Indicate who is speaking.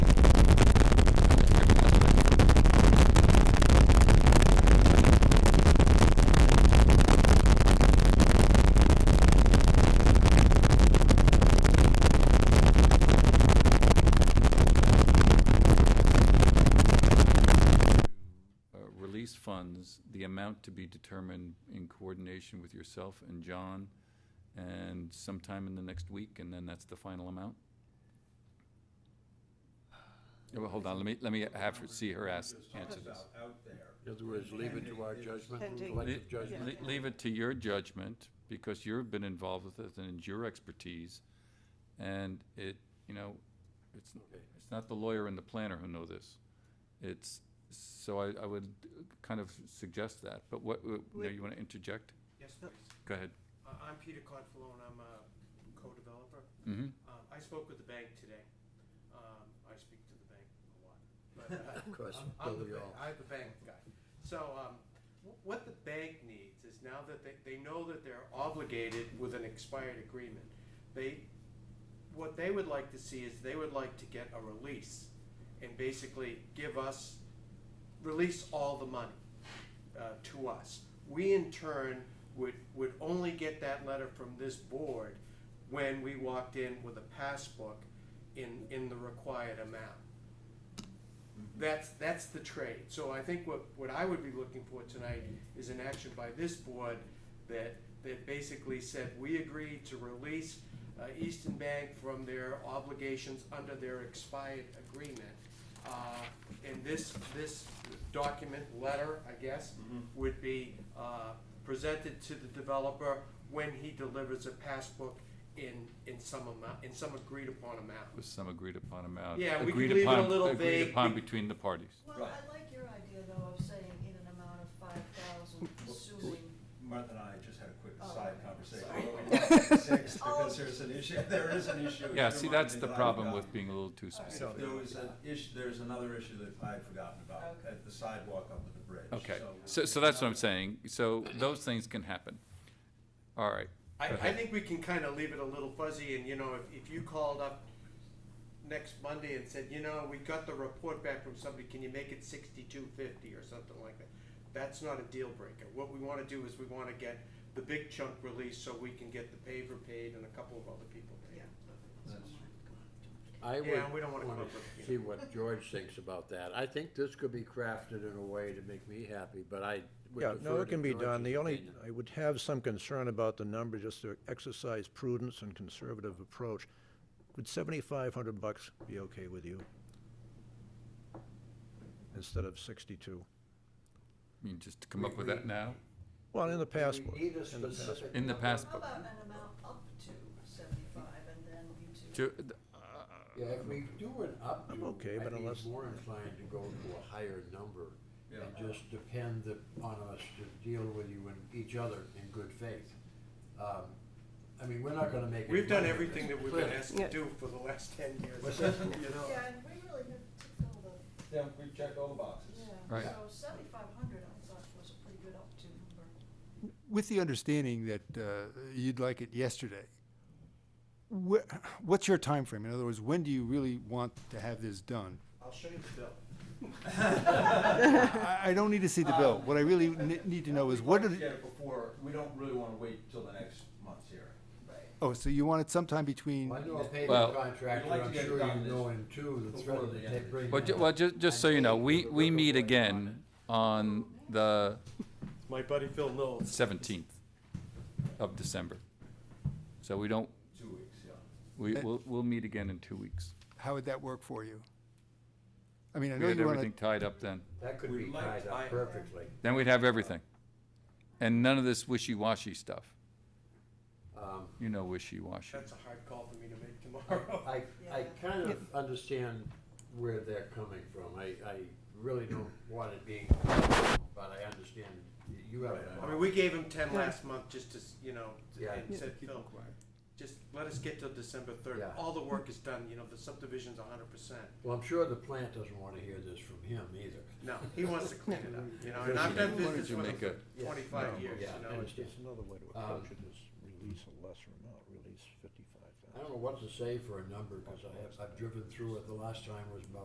Speaker 1: uh, funds, the amount to be determined in coordination with yourself and John, and sometime in the next week, and then that's the final amount? Yeah, Well, hold on, let me, let me have her, see her ask, answer this.
Speaker 2: out there.
Speaker 3: In other words, leave it to our judgment,
Speaker 4: Pending.
Speaker 3: collective judgment.
Speaker 1: Le- Leave it to your judgment, because you've been involved with it and it's your expertise, and it, you know, it's,
Speaker 3: Okay.
Speaker 1: it's not the lawyer and the planner who know this. It's, so I, I would kind of suggest that, but what, uh, now you wanna interject?
Speaker 5: Yes, please.
Speaker 1: Go ahead.
Speaker 5: Uh, I'm Peter Confalone, I'm a co-developer.
Speaker 1: Mm-hmm.
Speaker 5: Um, I spoke with the bank today. Um, I speak to the bank a lot. but, uh,
Speaker 3: Of course,
Speaker 5: I'm-
Speaker 3: but
Speaker 5: I'm the
Speaker 3: we
Speaker 5: ba-
Speaker 3: all-
Speaker 5: I'm the bank guy. So um, wh- what the bank needs is now that they, they know that they're obligated with an expired agreement, they, what they would like to see is they would like to get a release and basically give us, release all the money uh, to us. We in turn would, would only get that letter from this board when we walked in with a passbook in, in the required amount. That's, that's the trade. So I think what, what I would be looking for tonight is an action by this board that, that basically said, we agree to release uh, Eastern Bank from their obligations under their expired agreement. Uh, And this, this document, letter, I guess, would be uh, presented to the developer when he delivers a passbook in, in some amount, in some agreed upon amount.
Speaker 1: With some agreed upon amount.
Speaker 5: Yeah, we could
Speaker 1: Agreed
Speaker 5: leave it a
Speaker 1: upon-
Speaker 5: little
Speaker 1: Agreed
Speaker 5: vague.
Speaker 1: upon between the parties.
Speaker 4: Well, I like your idea though of saying in an amount of five thousand, assuming,
Speaker 2: Martha and I just had a quick
Speaker 4: Oh,
Speaker 2: side
Speaker 4: okay.
Speaker 2: conversation.
Speaker 4: Sorry.
Speaker 2: over six,
Speaker 4: Oh.
Speaker 2: Because there's an issue, there is an issue. in
Speaker 1: Yeah,
Speaker 2: your
Speaker 1: see, that's
Speaker 2: mind
Speaker 1: the
Speaker 2: that I've
Speaker 1: problem
Speaker 2: got.
Speaker 1: with being a little too
Speaker 4: All right.
Speaker 1: specific.
Speaker 2: There was an issue, there's another issue that I'd forgotten about,
Speaker 4: Okay.
Speaker 2: at the sidewalk up at the bridge.
Speaker 1: Okay, so, so that's what I'm saying, so those things can happen. All right,
Speaker 5: I,
Speaker 1: Go
Speaker 5: I
Speaker 1: ahead.
Speaker 5: think we can kind of leave it a little fuzzy, and you know, if, if you called up next Monday and said, you know, we got the report back from somebody, can you make it sixty-two fifty or something like that? That's not a deal breaker. What we want to do is we want to get the big chunk released so we can get the paver paid and a couple of other people paid.
Speaker 4: yeah.
Speaker 3: I
Speaker 5: Yeah, we
Speaker 3: would
Speaker 5: don't wanna come
Speaker 3: wanna
Speaker 5: up with, you
Speaker 3: see what George thinks about that. I think this could be crafted in a way to make me happy, but I would
Speaker 6: Yeah, no,
Speaker 3: defer
Speaker 6: it
Speaker 3: to
Speaker 6: can be done.
Speaker 3: George's
Speaker 6: The only,
Speaker 3: opinion.
Speaker 6: I would have some concern about the number, just to exercise prudence and conservative approach. Would seventy-five hundred bucks be okay with you? Instead of sixty-two?
Speaker 1: I mean, just to come up with that now,
Speaker 6: Well, in the past.
Speaker 3: We need a
Speaker 6: in the past.
Speaker 3: specific
Speaker 1: in the
Speaker 3: number.
Speaker 4: How
Speaker 1: passbook.
Speaker 4: about an amount up to seventy-five and then you two?
Speaker 1: To-
Speaker 3: Yeah, if we do it up
Speaker 6: I'm
Speaker 3: to,
Speaker 6: okay, but
Speaker 3: I'd be
Speaker 6: unless-
Speaker 3: more inclined to go to a higher number
Speaker 2: Yeah.
Speaker 3: and just depend the- on us to deal with you and each other in good faith. Um, I mean, we're not gonna make. any
Speaker 5: We've done
Speaker 3: money with
Speaker 5: everything
Speaker 3: this,
Speaker 5: that we've been
Speaker 3: clearly.
Speaker 5: asked to do for the last ten years.
Speaker 3: What's that?
Speaker 5: You know,
Speaker 4: Yeah, and we really have to fill the,
Speaker 2: Yeah, we've checked all the boxes.
Speaker 1: Right.
Speaker 4: yeah, so seventy-five hundred I thought was a pretty good up to number.
Speaker 7: With the understanding that uh, you'd like it yesterday, wh- what's your time frame? In other words, when do you really want to have this done?
Speaker 5: I'll show you the bill.
Speaker 7: I I don't need to see the bill. What I really ne- need to know is what are,
Speaker 2: We'd like to
Speaker 7: the-
Speaker 2: Get it before, we don't really wanna wait till the next month's hearing.
Speaker 4: Right.
Speaker 7: oh, so you want it sometime between,
Speaker 3: Well, I know a
Speaker 1: Well-
Speaker 3: paving contractor,
Speaker 2: We'd like
Speaker 3: I'm
Speaker 2: to get it
Speaker 3: sure
Speaker 2: done
Speaker 3: you know
Speaker 2: this-
Speaker 3: him too, the
Speaker 2: before
Speaker 3: threat of
Speaker 2: the end
Speaker 3: the
Speaker 2: of
Speaker 3: tape
Speaker 2: the
Speaker 3: break.
Speaker 1: Well, ju- well, just, just so you know, we, we meet again on the
Speaker 5: My buddy Phil Knowles.
Speaker 1: seventeenth of December. So we don't,
Speaker 2: Two weeks, yeah.
Speaker 1: we, we'll, we'll meet again in two weeks.
Speaker 7: how would that work for you? I mean, I
Speaker 1: We
Speaker 7: know
Speaker 1: had
Speaker 7: you
Speaker 1: everything
Speaker 7: want to,
Speaker 1: tied up then.
Speaker 3: That could
Speaker 2: We'd
Speaker 3: be
Speaker 2: like
Speaker 3: tied
Speaker 2: to- I-
Speaker 3: up perfectly.
Speaker 1: Then we'd have everything. And none of this wishy-washy stuff.
Speaker 3: Um,
Speaker 1: You know wishy-washy.
Speaker 5: That's a hard call for me to make tomorrow.
Speaker 3: I, I
Speaker 4: Yeah.
Speaker 3: kind of understand where they're coming from. I, I really don't want it being, but I understand you have.
Speaker 5: I mean, we gave him ten last month just to, s- you know,
Speaker 3: Yeah.
Speaker 5: and said, Phil, just let us get till December third.
Speaker 3: Yeah.
Speaker 5: All the work is done, you know, the subdivision's a hundred percent.
Speaker 3: Well, I'm sure the plant doesn't want to hear this from him either.
Speaker 5: No, he wants to clean it up, you know, and I've done
Speaker 1: Why don't
Speaker 5: business
Speaker 1: you
Speaker 5: with him
Speaker 1: make
Speaker 5: for
Speaker 1: a-
Speaker 3: Yeah.
Speaker 5: twenty-five years,
Speaker 3: Yeah,
Speaker 5: you
Speaker 3: I
Speaker 5: know.
Speaker 3: understand.
Speaker 6: It's another way to
Speaker 3: Um,
Speaker 6: approach it is release a lesser amount, release fifty-five
Speaker 3: I
Speaker 6: thousand.
Speaker 3: don't know what to say for a number because I have, I've driven through it. The last time was about